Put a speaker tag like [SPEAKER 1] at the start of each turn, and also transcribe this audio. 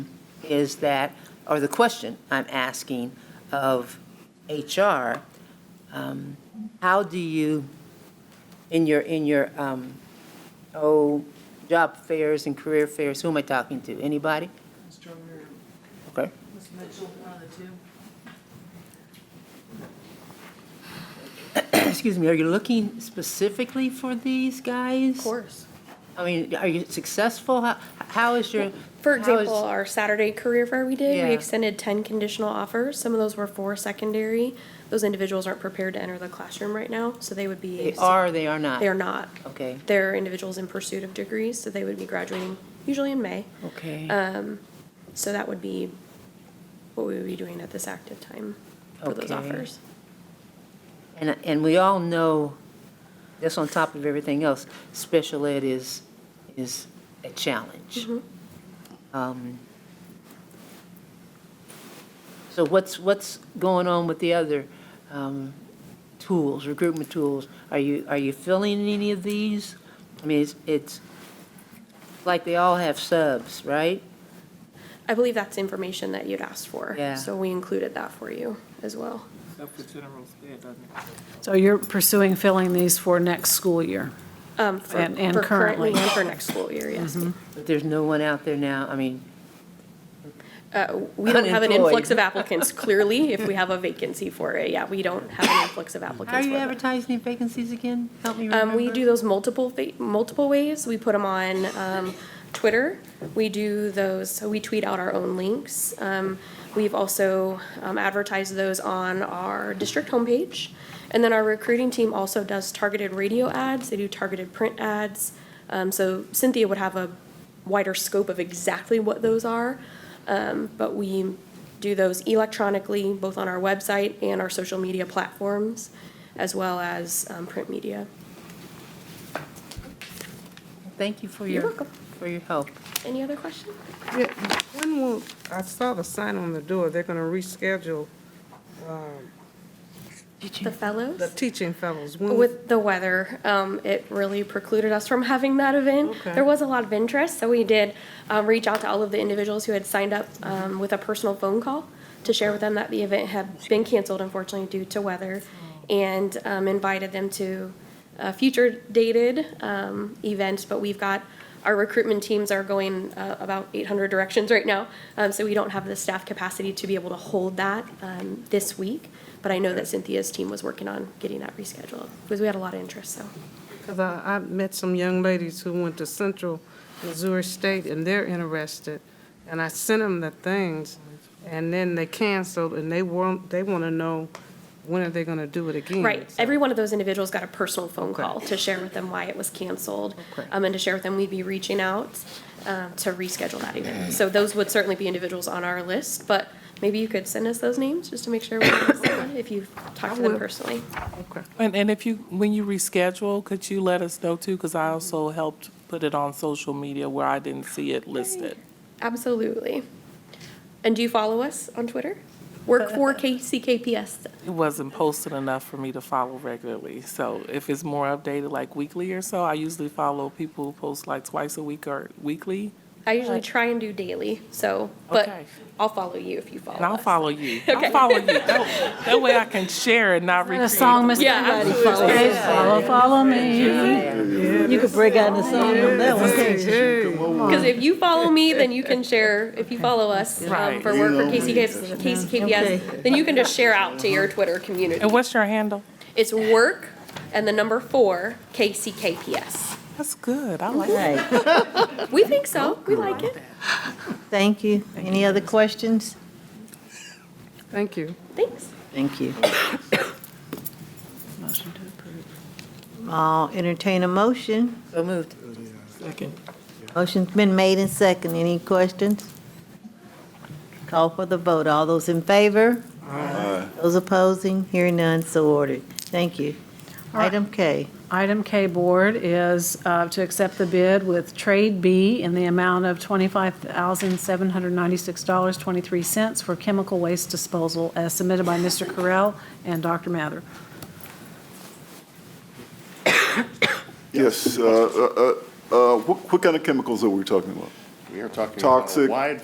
[SPEAKER 1] is that, or the question I'm asking of HR, um, how do you, in your, in your, um, oh, job fairs and career fairs, who am I talking to? Anybody?
[SPEAKER 2] Ms. Turner,
[SPEAKER 1] Okay.
[SPEAKER 2] Ms. Mitchell, one of the two.
[SPEAKER 1] Excuse me, are you looking specifically for these guys?
[SPEAKER 3] Of course.
[SPEAKER 1] I mean, are you successful? How- How is your?
[SPEAKER 3] For
[SPEAKER 1] how is-
[SPEAKER 3] example, our Saturday career fair we did,
[SPEAKER 1] Yeah.
[SPEAKER 3] we extended ten conditional offers. Some of those were for secondary. Those individuals aren't prepared to enter the classroom right now, so they would be.
[SPEAKER 1] They are, or they are not?
[SPEAKER 3] They are not.
[SPEAKER 1] Okay,
[SPEAKER 3] They're individuals in pursuit of degrees, so they would be graduating usually in May.
[SPEAKER 1] okay.
[SPEAKER 3] Uh, So that would be what we would be doing at this active time for those
[SPEAKER 1] Okay.
[SPEAKER 3] offers.
[SPEAKER 1] And, and we all know, that's on top of everything else, special ed is, is a challenge. Um, So what's, what's going on with the other um, tools, recruitment tools? Are you, are you filling any of these? I mean, it's, it's like they all have subs, right?
[SPEAKER 3] I believe that's information that you'd asked for.
[SPEAKER 1] Yeah.
[SPEAKER 3] So we included that for you as well.
[SPEAKER 4] Except for general sped, doesn't it?
[SPEAKER 5] So you're pursuing filling these for next school year?
[SPEAKER 3] Um, for-
[SPEAKER 5] And- and
[SPEAKER 3] for
[SPEAKER 5] currently.
[SPEAKER 3] and For next school year, yes.
[SPEAKER 1] But there's no one out there now, I mean,
[SPEAKER 3] Uh, We don't have an
[SPEAKER 1] Unemployed.
[SPEAKER 3] influx of applicants, clearly, if we have a vacancy for it. Yeah, we don't have an influx of applicants.
[SPEAKER 1] how are you
[SPEAKER 3] for that.
[SPEAKER 1] advertising vacancies again? Help me remember.
[SPEAKER 3] Um, we do those multiple, fa- multiple ways. We put them on, um, Twitter. We do those, so we tweet out our own links. Um, we've also um, advertised those on our district homepage. And then our recruiting team also does targeted radio ads. They do targeted print ads. Um, so Cynthia would have a wider scope of exactly what those are. Um, but we do those electronically, both on our website and our social media platforms, as well as, um, print media.
[SPEAKER 1] Thank you for
[SPEAKER 3] You're
[SPEAKER 1] your.
[SPEAKER 3] welcome.
[SPEAKER 1] For your help.
[SPEAKER 3] Any other questions?
[SPEAKER 6] Yeah, When will, I saw the sign on the door, they're gonna reschedule
[SPEAKER 3] The fellows?
[SPEAKER 6] the teaching fellows. When-
[SPEAKER 3] With the weather, um, it really precluded us from having that event.
[SPEAKER 6] Okay.
[SPEAKER 3] There was a lot of interest, so we did, um, reach out to all of the individuals who had signed up, um, with a personal phone call to share with them that the event had been canceled unfortunately due to weather and, um, invited them to, uh, future dated, um, events, but we've got, our recruitment teams are going, uh, about eight hundred directions right now. Um, so we don't have the staff capacity to be able to hold that, um, this week. But I know that Cynthia's team was working on getting that rescheduled, because we had a lot of interest, so.
[SPEAKER 6] Cause I, I met some young ladies who went to Central Missouri State and they're interested. And I sent them the things and then they canceled and they want, they wanna know when are they gonna do it again?
[SPEAKER 3] Right,
[SPEAKER 6] So-
[SPEAKER 3] every one of those individuals got a personal phone call to share with them why it was canceled, um, and to share with them we'd be reaching out, um, to reschedule that event. So those would certainly be individuals on our list, but maybe you could send us those names, just to make sure, we know someone, if you've talked to them
[SPEAKER 6] will.
[SPEAKER 3] personally.
[SPEAKER 6] Okay.
[SPEAKER 4] And, and if you, when you reschedule, could you let us know too? Because I also helped put it on social media where I didn't see it listed.
[SPEAKER 3] Absolutely. And do you follow us on Twitter?
[SPEAKER 4] Uh,
[SPEAKER 3] Work for KCKPS,
[SPEAKER 4] It wasn't posted enough for me to follow regularly. So if it's more updated, like weekly or so, I usually follow people who post like twice a week or weekly.
[SPEAKER 3] I usually try and do daily, so, but
[SPEAKER 4] uh, Okay.
[SPEAKER 3] I'll follow you if you follow
[SPEAKER 4] And I'll
[SPEAKER 3] us.
[SPEAKER 4] follow you. I'll follow you. That that way I can share and not
[SPEAKER 5] A
[SPEAKER 4] repeat.
[SPEAKER 5] song, Mr.
[SPEAKER 3] Yeah, absolutely.
[SPEAKER 5] Follow, follow me. You could break out the song on that one.
[SPEAKER 6] Hey, hey.
[SPEAKER 3] Because if you follow me, then you can share, if you follow us um,
[SPEAKER 4] Right.
[SPEAKER 3] for work for KCKPS, KCKPS, then you can just share out to your Twitter community.
[SPEAKER 4] And what's your handle?
[SPEAKER 3] It's work and the number four, KCKPS.
[SPEAKER 4] That's good. I like that.
[SPEAKER 7] Right,
[SPEAKER 3] We think so, we like it.
[SPEAKER 7] thank you. Any other questions?
[SPEAKER 6] Thank you.
[SPEAKER 3] Thanks.
[SPEAKER 7] Thank you. Motion to approve. I'll entertain a motion.
[SPEAKER 1] So moved.
[SPEAKER 7] Motion's been made and second. Any questions? Call for the vote. All those in favor? Aye. Those opposing? Hearing none, so ordered. Thank you. Item K.
[SPEAKER 5] Item K Board is uh, to accept the bid with Trade B in the amount of $25,796.23 for chemical waste disposal as submitted by Mr. Correll and Dr. Mather.
[SPEAKER 8] Yes, uh, uh, uh, uh, what what kind of chemicals are we talking about?
[SPEAKER 9] We are talking about a
[SPEAKER 8] Toxic.
[SPEAKER 9] wide